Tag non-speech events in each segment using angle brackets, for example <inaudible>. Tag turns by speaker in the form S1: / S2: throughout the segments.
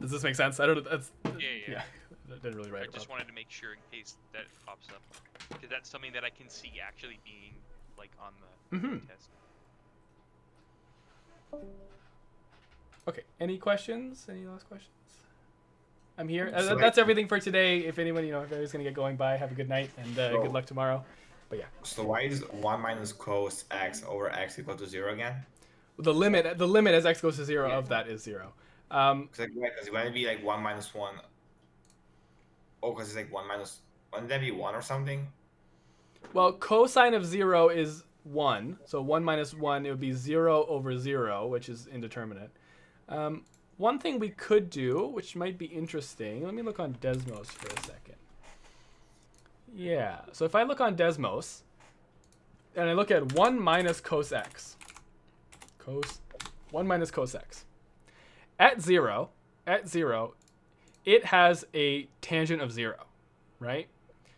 S1: Does this make sense? I don't. That's
S2: Yeah, yeah.
S1: yeah. <laughs> I didn't really
S2: I
S1: write.
S2: just
S1: about
S2: wanted to make sure in case that it pops up, because that's something that I can see actually being like on the
S1: Mhm.
S2: test.
S1: Okay. Any questions? Any last questions? I'm here. Uh,
S3: So-
S1: that's everything for today. If anyone, you know, if everybody's gonna get going, bye. Have a good night and uh,
S3: So-
S1: good luck tomorrow.
S3: So why is one minus cos x over x equal to zero again?
S1: The limit, the limit as x goes to zero of that is zero. Um,
S3: Because like, yeah, 'cause it wouldn't be like one minus one. Oh, because it's like one minus. Wouldn't that be one or something?
S1: Well, cosine of zero is one, so one minus one it would be zero over zero, which is indeterminate. Um, one thing we could do, which might be interesting, let me look on Desmos for a second. Yeah, so if I look on Desmos, and I look at one minus cos x, cos one minus cos x, at zero, at zero, it has a tangent of zero, right?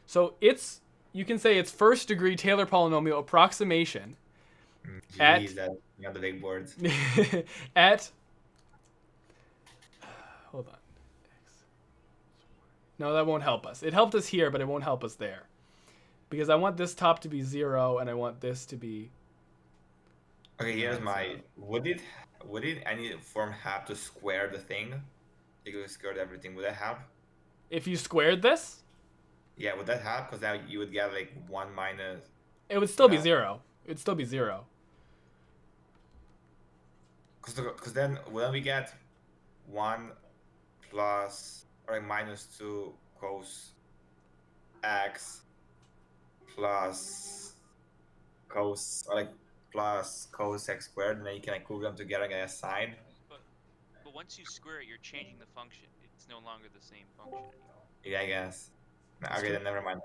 S1: So it's you can say it's first degree Taylor polynomial approximation At-
S3: Jeez, that you know, the big words.
S1: at hold on. No, that won't help us. It helped us here, but it won't help us there. Because I want this top to be zero and I want this to be
S3: Okay, here's
S1: so-
S3: my. Would it would it any form have to square the thing? If you squared everything, would that help?
S1: if you squared this,
S3: Yeah, would that help? Because now you would get like one minus.
S1: it would still be
S3: Yeah.
S1: zero. It'd still be zero.
S3: Because because then wouldn't we get one plus or like minus two cos x plus cos or like plus cos x squared, and then you can like group them together and get a side.
S2: But once you square it, you're changing the function. It's no longer the same function. anymore.
S3: Yeah, I guess. No,
S1: That's
S3: Okay,
S1: true.
S3: then never mind.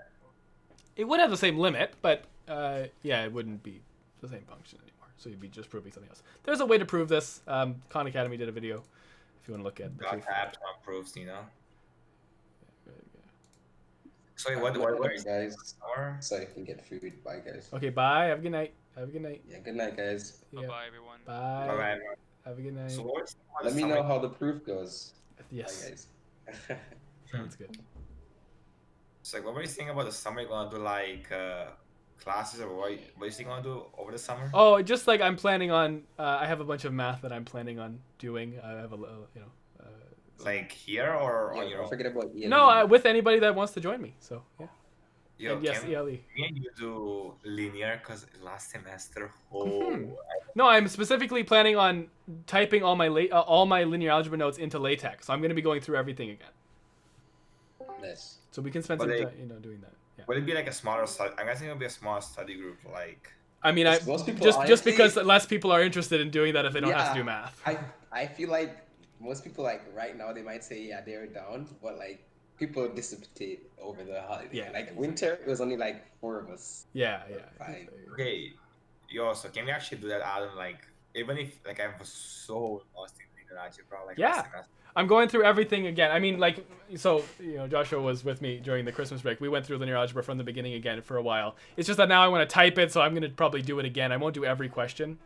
S1: It would have the same limit, but uh, yeah, it wouldn't be the same function anymore. So you'd be just proving something else. There's a way to prove this. Um, Khan Academy did a video if you want to look at the
S3: Dot
S1: proof.
S3: tabs, not proofs, you know.
S1: Yeah.
S3: So
S4: Uh,
S3: wait, what what what is
S4: guys?
S3: our?
S4: So I can get food. Bye, guys.
S1: Okay, bye. Have a good night. Have a good night.
S4: Yeah, good night, guys.
S1: Yeah.
S2: Bye, bye, everyone.
S1: Bye.
S3: Alright.
S1: Have a good night.
S3: So what is
S4: Uh, Let me know how the proof goes.
S1: yes,
S3: <laughs>
S4: Bye, guys.
S1: sounds good.
S3: So like, what were you thinking about the summer? You gonna do like uh, classes or what? What is you gonna do over the summer?
S1: Oh, just like I'm planning on. Uh, I have a bunch of math that I'm planning on doing. I have a little, you know. Uh,
S3: Like here or on
S4: yeah,
S3: your
S4: don't
S3: own?
S4: forget about ELE.
S1: no, I, with anybody that wants to join me. So yeah.
S3: Yo,
S1: and yes, E
S3: can
S1: ELE.
S3: me and you do linear? Cause last semester,
S1: Mm-hmm.
S3: oh,
S1: No, I'm specifically planning on typing all my la- uh, all my linear algebra notes into LaTeX. So I'm going to be going through everything again.
S4: Nice.
S1: So we can spend
S3: But
S1: some
S3: they-
S1: time, you know, doing that. Yeah.
S3: would it be like a smaller study? I'm guessing it'll be a small study group. Like,
S1: I mean, I
S4: most people,
S1: just just
S4: honestly,
S1: because less people are interested in doing that if they don't have to
S4: Yeah.
S1: do math.
S4: I I feel like most people like right now they might say yeah they're down, but like people dissipate over the holiday.
S1: Yeah.
S4: Like winter, it was only like four of us.
S1: Yeah, yeah.
S4: Fine.
S3: okay, yo, so can we actually do that, Adam? Like, even if like I was so lost in linear algebra, like
S1: Yeah.
S3: last semester.
S1: I'm going through everything again. I mean, like, so you know, Joshua was with me during the Christmas break. We went through linear algebra from the beginning again for a while. It's just that now I want to type it, so I'm gonna probably do it again. I won't do every question.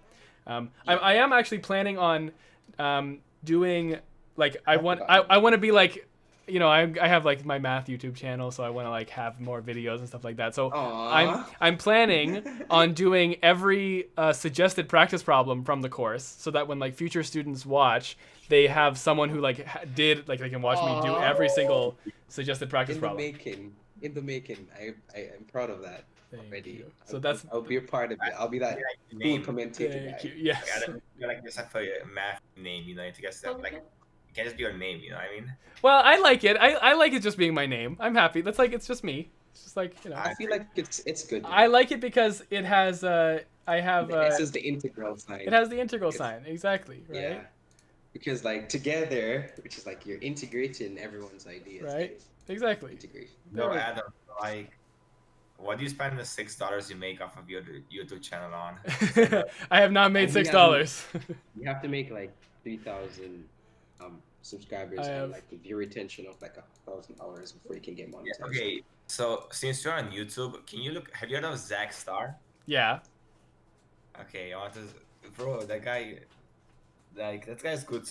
S1: Um, I, I am actually planning on um, doing like I want I, I want to be like you know I, I have like my math YouTube channel, so I want to like have more videos and stuff like that. So I'm
S4: Aww.
S1: I'm planning
S4: <laughs>
S1: on doing every uh, suggested practice problem from the course, so that when like future students watch, they have someone who like ha- did like they can watch me do every single suggested practice
S4: in the
S1: problem.
S4: making. In the making. I, I I'm proud of that
S1: Thank
S4: already.
S1: you.
S4: I'll-
S1: So that's
S4: I'll be a part of it. I'll be that
S3: Yeah, you
S4: cool
S3: name.
S4: commentator
S1: thank you.
S4: guy.
S1: Yes.
S3: Like, Adam, you're like just have a math name, you know. You guess that like it can just be your name, you know what I mean?
S1: Well, I like it. I I like it just being my name. I'm happy. That's like it's just me. It's just like you know.
S4: I feel like it's it's good.
S1: I like it because it has uh I have uh,
S4: this is the integral sign.
S1: it has the integral
S4: It's-
S1: sign exactly right.
S4: Yeah. Because like together, which is like you're integrating everyone's ideas.
S1: Right.
S4: guys.
S1: Exactly.
S4: Integration.
S3: No,
S1: Really?
S3: Adam, like, what do you spend the six dollars you make off of your YouTube channel on?
S1: <laughs> I have not made
S4: And we
S1: six
S4: have-
S1: dollars. <laughs>
S4: You have to make like three thousand um subscribers
S1: I have-
S4: and like the view retention of like a thousand hours before you can get
S3: Yeah,
S4: monetized.
S3: okay, so since you're on YouTube, can you look? Have you heard of Zach Star?
S1: yeah.
S3: Okay, I want to, bro. That guy, like, that guy's good